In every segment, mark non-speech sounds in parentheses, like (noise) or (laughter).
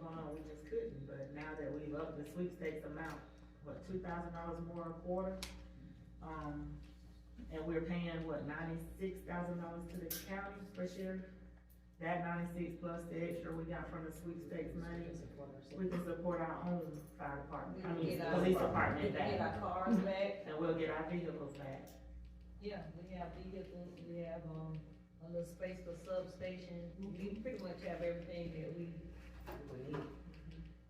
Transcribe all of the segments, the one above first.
going on, we just couldn't, but now that we've upped the sweepstakes amount, what, two thousand dollars more a quarter? Um, and we're paying, what, ninety-six thousand dollars to the county for sheriff? That ninety-six plus the extra we got from the sweepstakes money, we can support our own fire department, I We mean, get our- police We department can get back, our cars Mm-hmm. back, and we'll get our vehicles back. yeah, we have vehicles, we have, um, a little space for substation, Mm-hmm. we pretty much have everything that we.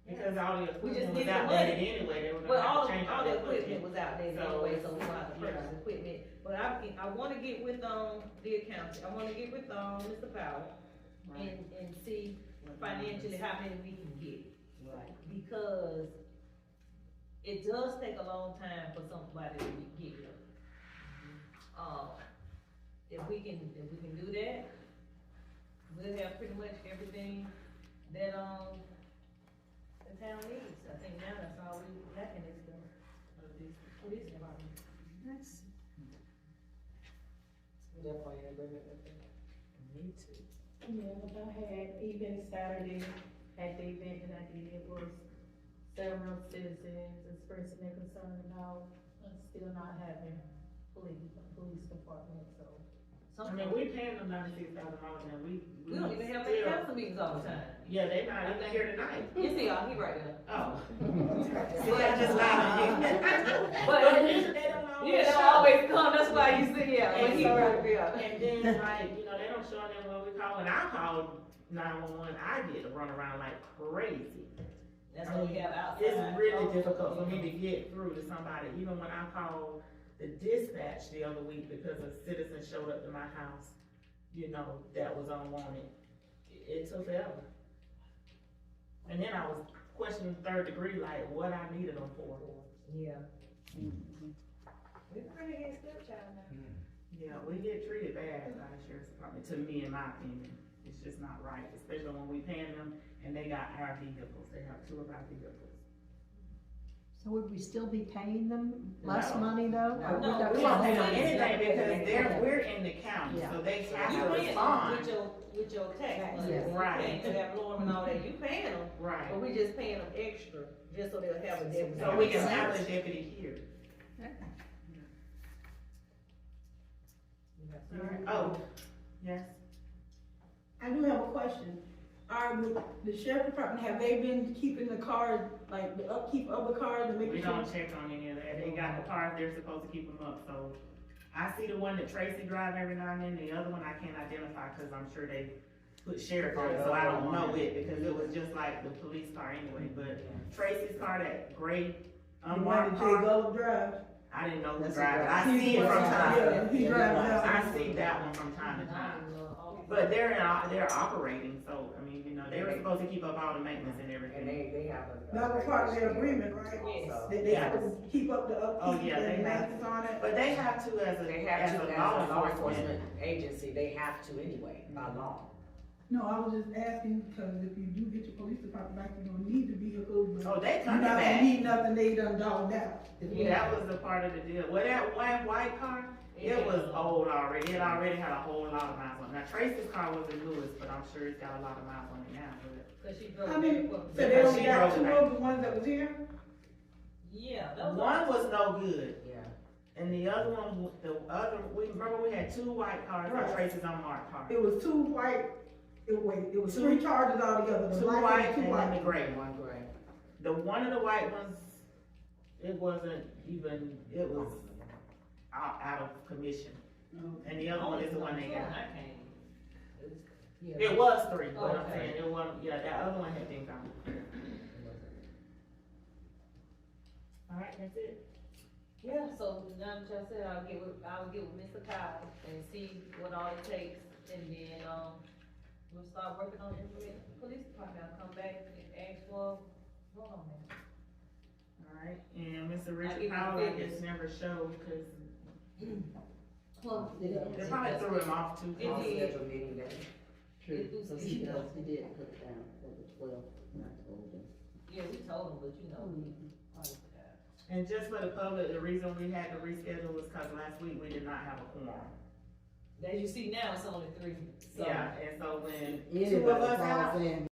Because all the We equipment just was need the outdated money. anyway, they were Well, gonna all, have to change all all the the equipment equipment. was out there So, anyway, so we had to purchase yeah. equipment, but I, can- I wanna get with, um, the accountant, I wanna get with, um, Mr. Powell and, Right. and see financially how many we can get. Right. because it does take a long time for somebody to get here. Uh, if we can, if we can do that, we'll have pretty much everything that, um, the town needs, I think now that's all we lacking is the police department. Me too. Yeah, what I had even Saturday at the event that I did was several citizens expressing their concern about us still not having police, police department, (laughs) so. I mean, we paying them ninety-six thousand dollars and we. We don't even have any still- Hmm. council meetings all the time, Yeah, they not even here tonight. you see, y'all, he right (laughs) there. (laughs) Oh. See, I (laughs) just lied. But (laughs) But, they don't know. you don't always come, that's why you sit here, but he right there. And then like, you know, they don't show them when we call, when I call nine-one-one, I get run around like crazy. That's what we have outside. It's really Oh, difficult for me to get through to somebody, even when I called the dispatch the other week because a citizen showed up to my house, you know, that was unwanted. It- It took forever. And then I was questioning third degree, like what I needed them for. Yeah. We're pretty good stepchild now. Yeah, we get treated bad by the sheriff's department, to me, in my opinion. It's just not right, especially when we paying them and they got our vehicles, they have two of our vehicles. So would we still be paying them less No. money though? Or No. would We that- won't pay them anything because they're, we're in the county, Yeah. so they have You to paying them with respond. your, with your tax Tax, money. yes. You Right. paying to that loan and all that, you paying them, Right, but we just paying them extra, just so they'll have a debt. so we can have a deputy here. Oh, yes, I do have a question. Are the- the sheriff department, have they been keeping the cars, like the upkeep of the cars and we making sure? don't check on any of that, they got the cars, they're supposed to keep them up, so. I see the one that Tracy drive every now and then, the other one I can't identify, cause I'm sure they put sheriff on it, so I don't know it, because it was just like the police car anyway, but Tracy's car, that gray The one unmarked that Jay car, Gold drives? I didn't know who That's a drive it, I He's see it the from one- time. yeah, He drives out. I see that one from time to time. But they're in, they're operating, so, I mean, you know, they were supposed to keep up all the maintenance and And everything. they, they have a. That was part of their agreement, right? Also. That they have to keep up the Oh, upkeep yeah, they and have- maintenance on it? But they have to as They a, have as to, a as a law enforcement agency, they have to anyway, by law. No, I was just asking, because if you do get your police department back, you're gonna need the vehicle, but Oh, they you're coming not gonna back. need nothing they done dogged out. Yeah, That was the part of the deal. Well, that one white car, it was old already. It already had a whole lot of miles on it. Now Tracy's car was the newest, but I'm sure it's got a lot of miles on it now, but. Cause she drove. I mean, people. So they Because only she got drove two back. of the ones that was here? Yeah, that was, One was no good, Yeah. and the other one, the other, we, remember we had two white cars, and Right. Tracy's unmarked car. It was two white, it was, it was three charges altogether, the Two black white and and two then the white. gray one. One gray. The one of the white ones, it wasn't even, it was out, out of commission. And the other one is Oh, the one they got. I can't. Yeah. It was three, but I'm Okay. saying, it was, yeah, that other one had been gone. Alright, that's it. Yeah, so now that y'all said, I'll get with, I'll get with Mr. Kyle and see what all it takes, and then, um, we'll start working on implementing the police department, I'll come back and ask for, hold on now. Alright, and Mr. I give Richard you Powell, I figures. guess never showed, cause Well, they probably threw him off too It On far. did. scheduled meeting day. True. So she does- he did put down for the twelfth, and I told Mm-hmm. him. Yeah, we told him, but you know, we, oh, God. And just for the public, the reason we had to reschedule was cause last week we did not have a quorum. as you see now, it's only three, so. Yeah, and so when two of Anybody us out, calls in,